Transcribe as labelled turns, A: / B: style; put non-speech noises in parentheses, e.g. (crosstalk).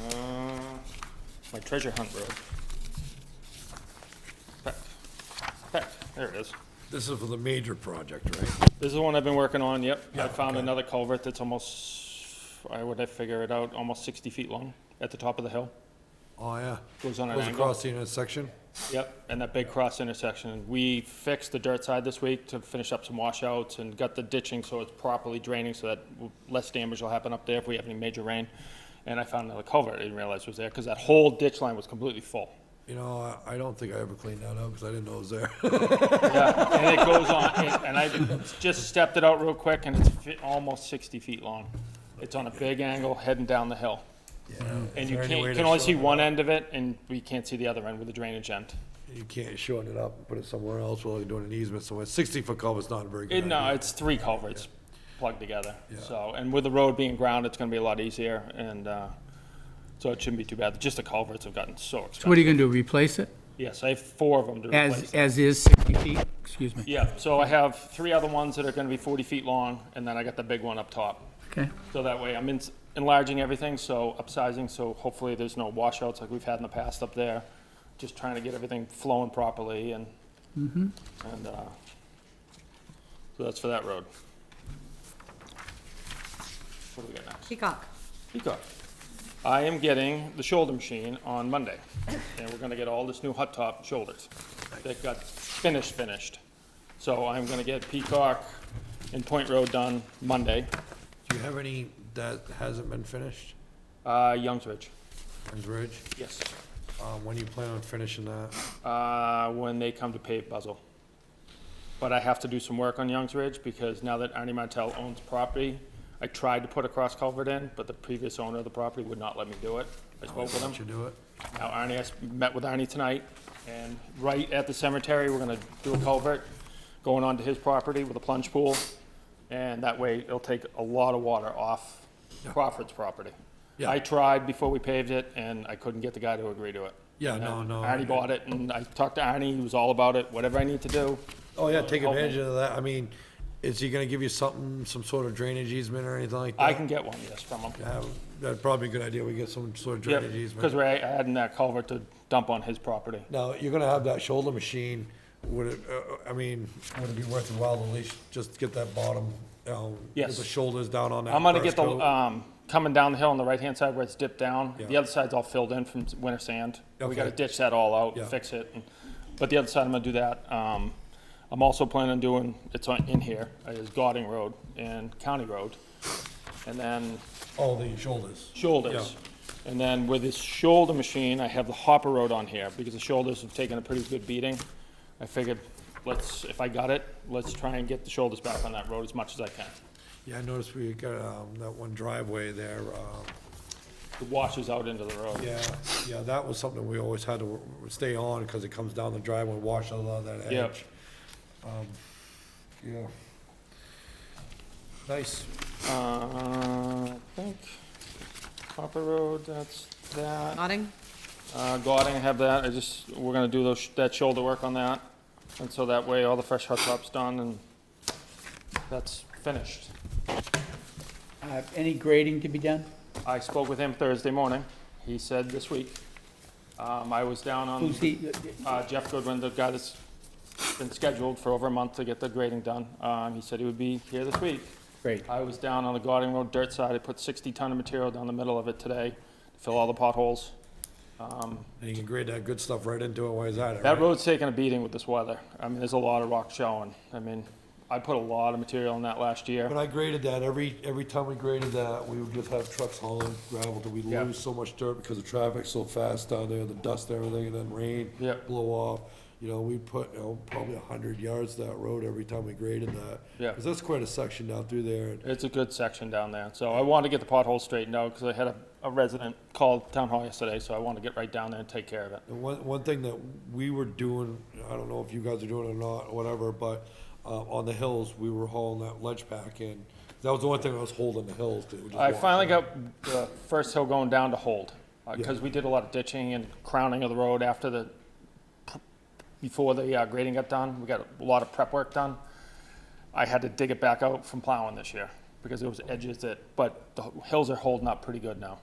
A: Uh, My treasure hunt road. Pep, pep, there it is.
B: This is for the major project, right?
A: This is the one I've been working on, yep. I
B: Yeah,
A: found
B: okay.
A: another culvert that's almost, I would have figured it out, almost sixty feet long at the top of the hill.
B: Oh, yeah.
A: Goes on an
B: Goes
A: angle.
B: across the intersection?
A: Yep, and that big cross intersection. We fixed the dirt side this week to finish up some washouts and got the ditching so it's properly draining so that w- less damage will happen up there if we have any major rain. And I found another culvert I didn't realize was there because that whole ditch line was completely full.
B: You know, I, I don't think I ever cleaned that up because I didn't know it
A: (laughs)
B: was there.
A: Yeah, and it goes on, and- and I just stepped it out real quick and it's fi- almost sixty feet long. It's on a big angle heading down the hill.
B: (laughs)
A: And you
B: there any
A: can't,
B: way
A: you
B: to
A: can only
B: show
A: see
B: that?
A: one end of it and we can't see the other end with the drainage end.
B: You can't shorten it up and put it somewhere else while you're doing an easement somewhere. Sixty foot culvert's not a very
A: It,
B: good
A: no,
B: idea.
A: it's three culverts plugged together,
B: Yeah.
A: so, and with the road being ground, it's gonna be a lot easier, and, uh, so it shouldn't be too bad, just the culverts have gotten so
C: What
A: expensive.
C: are you going to do, replace it?
A: Yes, I have four of them to replace.
C: As, as is, 60 feet? Excuse me.
A: Yeah, so I have three other ones that are gonna be forty feet long, and then I got the big one up top.
C: Okay.
A: So that way, I'm ins- enlarging everything, so upsizing, so hopefully there's no washouts like we've had in the past up there. Just trying to get everything flowing properly and, and, uh, so that's for that road. What do we got next?
D: Peacock.
A: Peacock. I am getting the shoulder machine on Monday, and we're gonna get all this new hot top shoulders that got finished, finished. So I'm gonna get Peacock and Point Road done Monday,
B: Do you have any that hasn't been finished?
A: uh, Youngs Ridge.
B: Ends Ridge?
A: Yes.
B: Um, when do you plan on finishing that?
A: Uh, when they come to pave Buzzell. But I have to do some work on Youngs Ridge because now that Arnie Martel owns property, I tried to put a cross culvert in, but the previous owner of the property would not let me do it. I spoke with him.
B: Don't you do it?
A: Now Arnie, I s- met with Arnie tonight, and right at the cemetery, we're gonna do a culvert going onto his property with a plunge pool. And that way, it'll take a lot of water off Crawford's property.
B: Yeah.
A: I tried before we paved it, and I couldn't get the guy to agree to it.
B: Yeah, no,
A: And
B: no.
A: Arnie bought it, and I talked to Arnie, he was all about it, whatever I need to do.
B: Oh, yeah, take
A: Help me.
B: advantage of that. I mean, is he gonna give you something, some sort of drainage easement or anything like that?
A: I can get one, yes, from him.
B: Have, that'd probably be a good idea. We get some sort of drainage easement.
A: Because we're adding that culvert to dump on his property.
B: Now, you're gonna have that shoulder machine, would it, uh, I mean, would it be worth your while to at least just get that bottom, um, get
A: Yes.
B: the shoulders down on that
A: I'm gonna
B: first
A: get the,
B: coat?
A: um, coming down the hill on the right-hand side where it's dipped down, the
B: Yeah.
A: other side's all filled in from s- winter sand. We gotta
B: Okay.
A: ditch that all out,
B: Yeah.
A: fix it, and- but the other side, I'm gonna do that. Um, I'm also planning on doing, it's on, in here, is Godding Road and County Road, and then
B: Oh, the shoulders.
A: shoulders. And then with this shoulder machine, I have the hopper road on here, because the shoulders have taken a pretty good beating. I figured, let's, if I got it, let's try and get the shoulders back on that road as much as I can.
B: Yeah, I noticed we got, um, that one driveway there, um,
A: It washes out into the road.
B: yeah, yeah, that was something we always had to w- w- stay on, cause it comes down the driveway, washes out that
A: Yeah.
B: edge. Um, Yeah. Nice.
A: Uh, I think Hopper Road, that's that.
D: Nodding.
A: Uh, Gauding, I have that. I just, we're gonna do those, that shoulder work on that. And so that way all the fresh hot top's done and that's finished.
C: Uh, Any grading to be done?
A: I spoke with him Thursday morning. He said this week. Um, I was down on,
C: Who's he,
A: uh, Jeff Goodwin, the guy that's been scheduled for over a month to get the grading done. Um, he said he would be here this week.
C: great,
A: I was down on the Gauding Road dirt side. I put sixty ton of material down the middle of it today to fill all the potholes. Um,
B: And you can grade that good stuff right into it, why is that?
A: That road's taking a beating with this weather. I mean, there's a lot of rock showing. I mean, I put a lot of material in that last year.
B: When I graded that, every, every time we graded that, we would just have trucks hauling gravel, till we
A: Yeah.
B: lose so much dirt because the traffic's so fast down there, the dust and everything, and then rain,
A: Yeah.
B: blow off. You know, we put, you know, probably a hundred yards to that road every time we graded that.
A: Yeah.
B: Cause that's quite a section down through there, and
A: It's a good section down there, so I wanted to get the potholes straightened out, because I had a, a resident call town hall yesterday, so I wanted to get right down there and take care of it.
B: And One, one thing that we were doing, I don't know if you guys are doing it or not, or whatever, but, uh, on the hills, we were hauling that ledge pack in. That was the only thing I was holding the hills to. just
A: I
B: walk
A: finally
B: down.
A: got the first hill going down to hold, because
B: Yeah.
A: we did a lot of ditching and crowning of the road after the, before the uh, grading got done, we got a lot of prep work done. I had to dig it back out from plowing this year, because there was edges that, but the hills are holding up pretty good now.